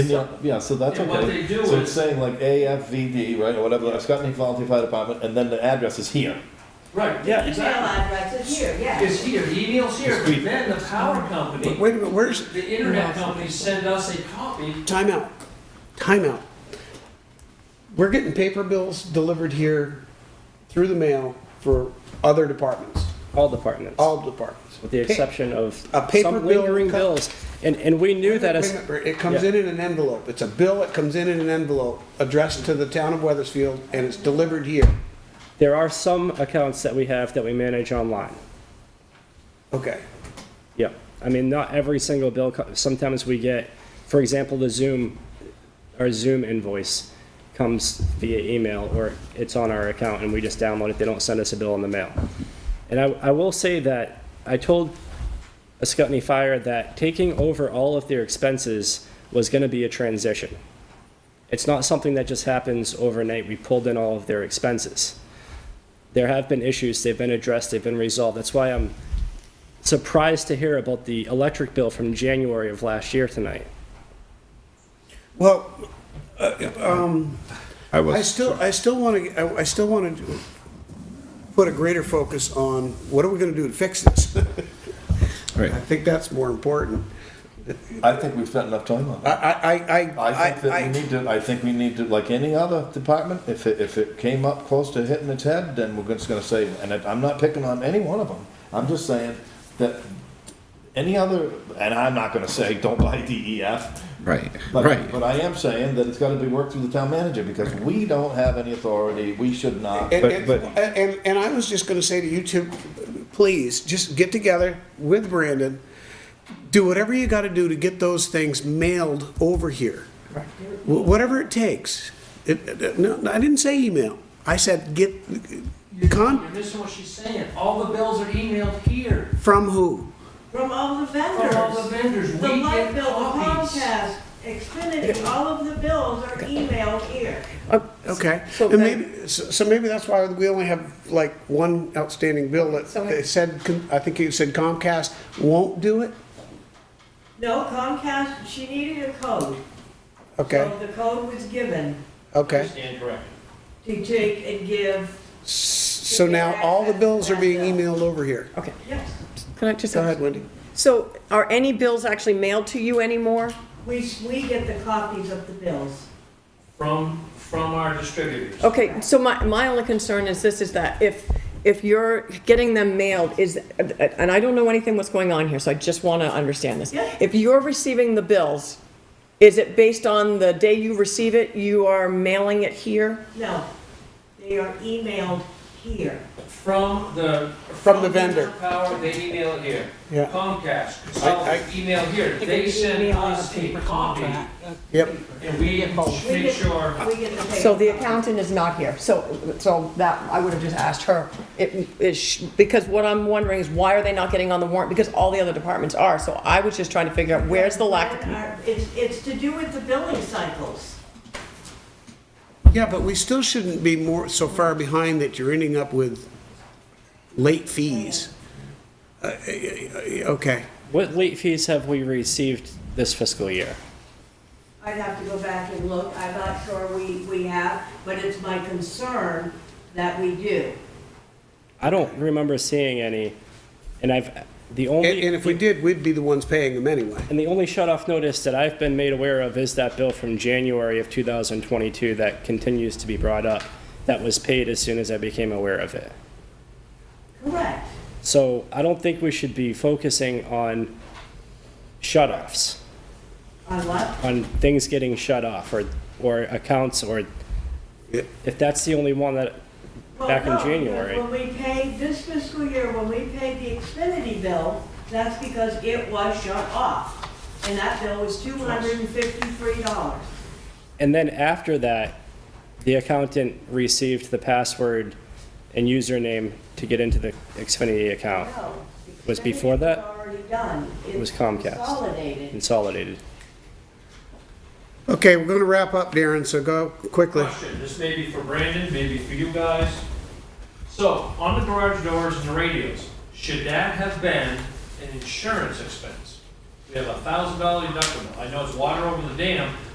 Yeah, yeah, so that's And okay. what they do So is- it's saying like AFVD, right, or whatever, the Scotty Volunteer Fire Department, and then the address is here. Right, Yeah. yeah, Email exactly. address is here, yeah. It's here, the email's here, Sweet. but then the power company, Wait a minute, where's, the internet companies send us a copy. timeout, timeout. We're getting paper bills delivered here through the mail for other departments, all departments, all departments. with the Pa- exception of A paper some bill lingering co- bills. And, and we knew that as, Remember, It comes in in an envelope. It's a bill, it comes in in an envelope addressed to the town of Weathersfield and it's delivered here. there are some accounts that we have that we manage online. Okay, Yep. I mean, not every single bill, co- sometimes we get, for example, the Zoom, our Zoom invoice comes via email or it's on our account and we just download it, they don't send us a bill in the mail. And I, I will say that I told Ascutney Fire that taking over all of their expenses was gonna be a transition. It's not something that just happens overnight, we pulled in all of their expenses. There have been issues, they've been addressed, they've been resolved, that's why I'm surprised to hear about the electric bill from January of last year tonight. well, uh, um, I I was, still, I still want to, I- I still want to put a greater focus on what are we going to do to fix this? right. I think that's more important. I think we've spent enough time on I, that. I, I, I think that I- we need to, I think we need to, like any other department, if it, if it came up close to hitting its head, then we're just gonna say, and I- I'm not picking on any one of them. I'm just saying that any other, and I'm not gonna say, don't buy DEF, Right, But, right. but I am saying that it's got to be worked through the town manager because we don't have any authority. We should not. And, But- and, but- and, and I was just gonna say to you two, please, just get together with Brandon, do whatever you gotta do to get those things mailed over here. Wh- Whatever it takes. It- it- no, no, I didn't say email. I said get, You're Con- you're missing what she's saying. All the bills are emailed here from who? From all the from all the vendors. vendors. We The light get bill, copies. Comcast, Xfinity, all of the bills are emailed here. Oh, Okay, So and then- maybe, so so maybe that's why we only have like one outstanding bill that So- they said, con- I think you said Comcast won't do it? No, Comcast, she needed a code. Okay, So the code was given okay. Stand corrected. to take and give, So now all the bills are being emailed over here. Okay, yes. can I just, Go ahead, Wendy. so are any bills actually mailed to you anymore? We, we get the copies of the bills. From, from our Oh. distributors. Okay, so my, my only concern is this, is that if, if you're getting them mailed, is, and I don't know anything what's going on here, so I just want to understand this. Yeah. If you're receiving the bills, is it based on the day you receive it, you are mailing it here? No, they are emailed here. From the. From the vendor. Power, they email it here. Yeah. Comcast, I- consultants, email here. They send email us a copy Yep. and we We make get- sure. We get the paper. So the accountant is not here, so, so that, I would have just asked her, it is, sh- because what I'm wondering is why are they not getting on the warrant, because all the other departments are, so I was just trying to figure out where's the lack uh, of. It's, it's to do with the billing cycles. Yeah, but we still shouldn't be more, so far behind that you're ending up with late fees. Uh, Okay, What late fees have we received this fiscal year? I'd have to go back and look, I'm not sure we, we have, but it's my concern that we do. I don't remember seeing any, and I've, the and only, and if we did, we'd be the ones paying them anyway. and the only shut-off notice that I've been made aware of is that bill from January of 2022 that continues to be brought up, that was paid as soon as I became aware of it. Correct. So I don't think we should be focusing on shut-offs, On what? on things getting shut off, or, or accounts, or, Yeah. if that's the only one that, Well, back in no, because January. When we paid, this fiscal year, when we paid the Xfinity bill, that's because it was shut off. And that bill was two hundred and fifty-three dollars. And then after that, the accountant received the password and username to get into the Xfinity account No. Was before that? Xfinity was Already done. It was Comcast. Consolidated. consolidated. Okay, we're gonna wrap up, Darren, so go quickly. Question, this may be for Brandon, maybe for you guys. So, on the garage doors and the radios, should that have been an insurance expense? We have a thousand dollar deductible, I know it's water over the dam,